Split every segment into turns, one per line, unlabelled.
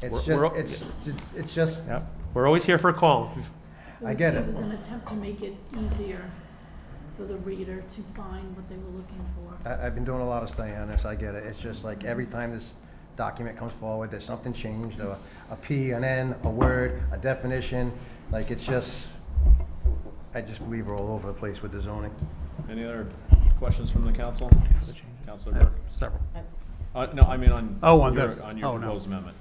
It's
We're-
just,
we're-
it's, it's just,
Yep. We're always here for a call.
I get
It
it.
was an attempt to make it easier for the reader to find what they were looking for.
I, I've been doing a lot of study on this, I get it. It's just like every time this document comes forward, there's something changed, or a P, an N, a word, a definition. Like, it's just, I just believe we're all over the place with the zoning.
Any other questions from the council? Counselor Burke?
Several.
Uh, no, I mean on.
Oh, on
your-
this.
On your
Oh, no.
proposed amendment.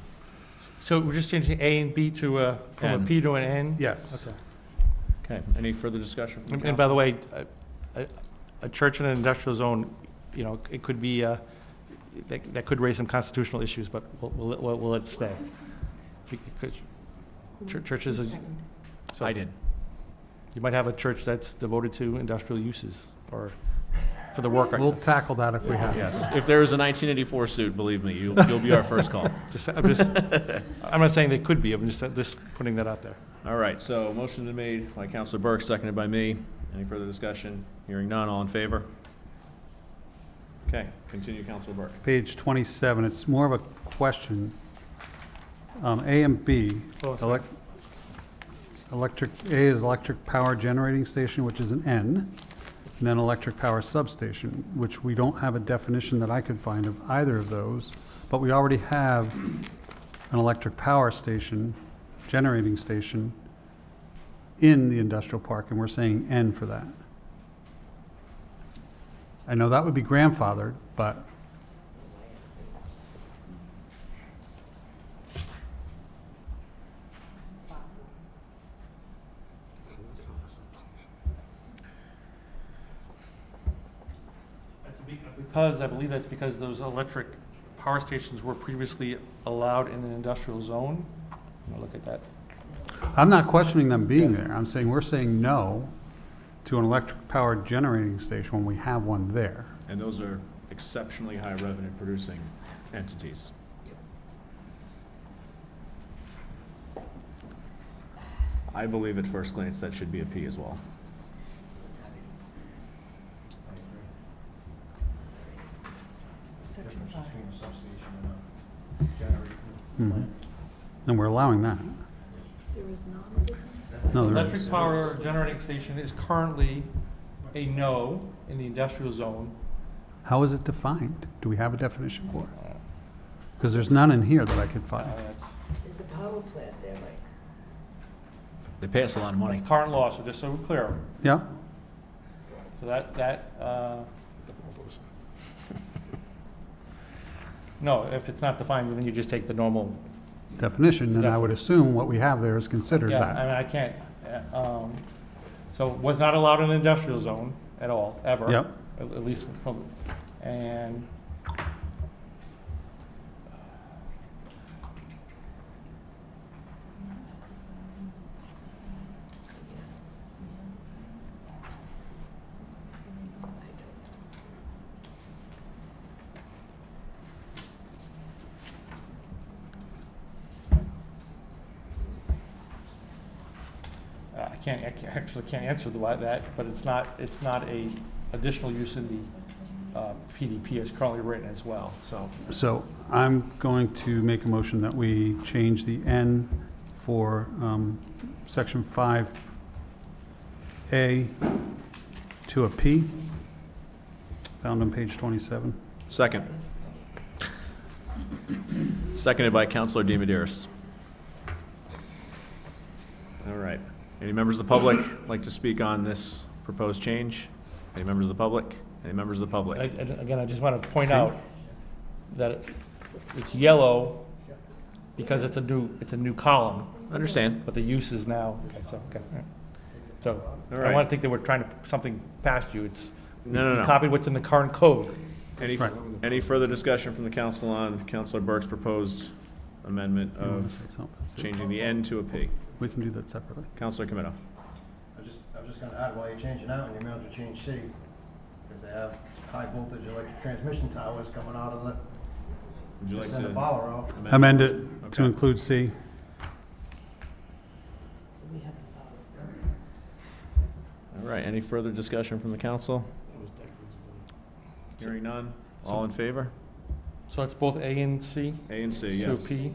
So we're just changing A and B to, uh, from a
N.
P to an N?
Yes.
Okay.
Okay, any further discussion? from
And
the
and by the
council?
way, a, a- a church in an industrial zone, you know, it could be, uh, that, that could raise some constitutional issues, but we'll, we'll, we'll- we'll let it stay. Because chur- churches, are- so-
I did.
you might have a church that's devoted to industrial uses or for the worker.
We'll tackle that if we have. to.
Yes, if there is a 1984 suit, believe me, you'll, you'll be our first call.
Just, I'm just, I'm not saying they could be, I'm just, just putting that out there.
All right, so motion been made by Counselor Burke, seconded by me. Any further discussion? Hearing none, all in favor? Okay, continue, Counselor Burke.
Page 27, it's more of a question. Um, A and B.
Oh, sorry.
elec- Electric, A is electric power generating station, which is an N, and then electric power substation, which we don't have a definition that I could find of either of those, but we already have an electric power station, generating station, in the industrial park, and we're saying N for that. I know that would be grandfathered, but
That's be- Because, I believe that's because those electric power stations were previously allowed in an industrial zone. I'll look at that.
I'm not questioning them being there. I'm saying, we're saying no to an electric powered generating station when we have one there.
And those are exceptionally high revenue producing entities. I believe at first glance that should be a P as well.
Mm-hmm.
And we're allowing that.
There is not a difference.
No, Oh, there is.
Electric power generating station is currently a no in the industrial zone.
How is it defined? Do we have a definition for it? Because there's none in here that I could
Uh,
find.
That's
There's a power plant there, Mike.
They pay us a lot of money.
that's current law, so just so we're clear.
Yeah?
So that, that, uh, no, if it's not defined, then you just take the normal.
Definition, then I would assume what we have there is considered
Yeah, I mean,
that.
I can't, uh, um, so was not allowed in industrial zone at all, ever.
Yep.
At at least from, and Uh, I can't, I can't- actually can't answer the why that, but it's not, it's not a additional use in the uh, PDP as currently written as well, so.
So I'm going to make a motion that we change the N for um, section 5A to a P, found on page 27.
Second. Seconded by Counselor DiMederos. All right. Any members of the public like to speak on this proposed change? Any members of the public? Any members of the
I- I-
public?
Again, I just want to point out that it- it's yellow because it's a new, it's a new column,
Understand?
but the use is now, okay, so, okay. all right. So
All
I
right.
want to think that we're trying to, something past you, it's.
No, no, no.
Copy what's in the current code.
Any,
Right.
any further discussion from the council on Counselor Burke's proposed amendment of
So
changing the N to a P?
We can do that separately.
Counselor Camino.
I was just, I was just gonna add, while you're changing out, and you may as well change C, because they have high voltage electric transmission towers coming out of the,
Would you like
just
to?
in the bower out.
Amend it
Okay.
to include C.
We have a power plant.
All right, any further discussion from the council? Hearing none, all in favor?
So that's both A and C?
A and C,
So
yes.
P,